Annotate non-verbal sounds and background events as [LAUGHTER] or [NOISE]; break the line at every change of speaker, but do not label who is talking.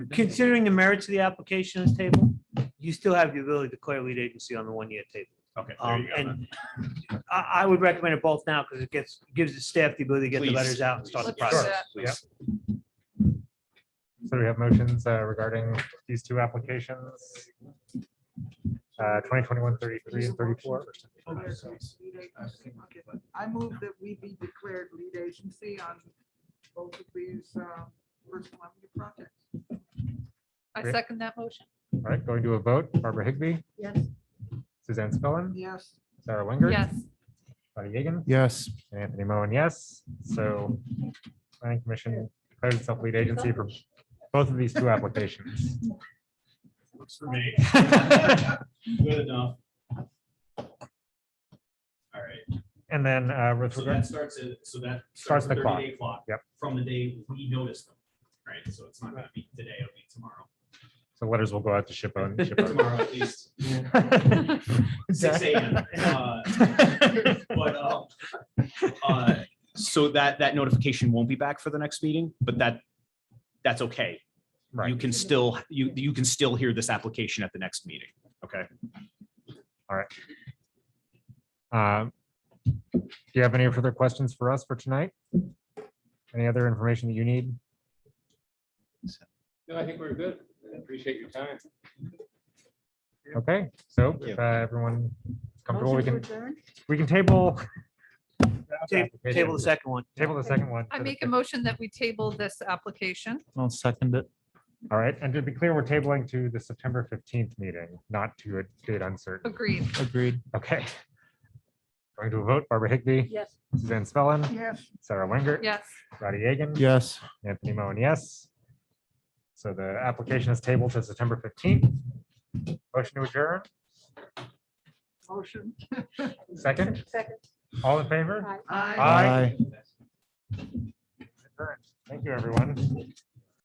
Considering the merits of the application on this table, you still have the ability to declare lead agency on the one-year table.
Okay. there
Um,
you go then.
and I, I would recommend it both now because it gets, gives the staff the ability to get the
Please.
letters out and start the
Let's do
process.
that.
Please.
So we have motions uh, regarding these two applications. Uh, 2021 33 and 34.
I move that we be declared lead agency on both of these uh, personal property projects.
I
Great.
second that motion.
All right, going to a vote. Barbara Higbee,
Yes.
Suzanne Spellin,
Yes.
Sarah Winger.
Yes,
Bonnie Yeagan,
Yes.
and Anthony Mowen, yes. So planning commission declares itself lead agency for both of these two applications.
Works for me. [LAUGHS] Good enough. All right,
And then uh, with
so
regard,
that starts at, so that.
Starts the
at
clock.
30-day clock.
Yep.
From the day we notice them, right? So it's not gonna be today, it'll be tomorrow.
so letters will go out to ship on.
[LAUGHS] Tomorrow at least,
[LAUGHS]
six AM. Uh, But, um, uh, so that, that notification won't be back for the next meeting, but that, that's okay. You
Right.
can still, you, you can still hear this application at the next meeting, okay?
Um, Do you have any further questions for us for tonight? Any other information that you need?
No, I think we're good. I Appreciate your time.
Okay, so
you.
if uh, everyone is comfortable, we
Motion
can,
to adjourn?
we can table.
Ta- Table the second one.
Table the second one.
I make a motion that we table this application.
I'll second it.
All right, and to be clear, we're tabling to the September fifteenth meeting, not to a date uncertain.
Agreed.
Agreed.
Okay. Going to a vote, Barbara Higbee,
Yes.
Suzanne Spellin,
Yes.
Sarah Winger,
Yes.
Roddy Yagan.
Yes.
Anthony Moan, yes. So the application is tabled to September fifteenth. Motion to adjourn,
Motion.
second,
Second.
all in favor?
Aye.
Aye. Adjourned. Thank you, everyone.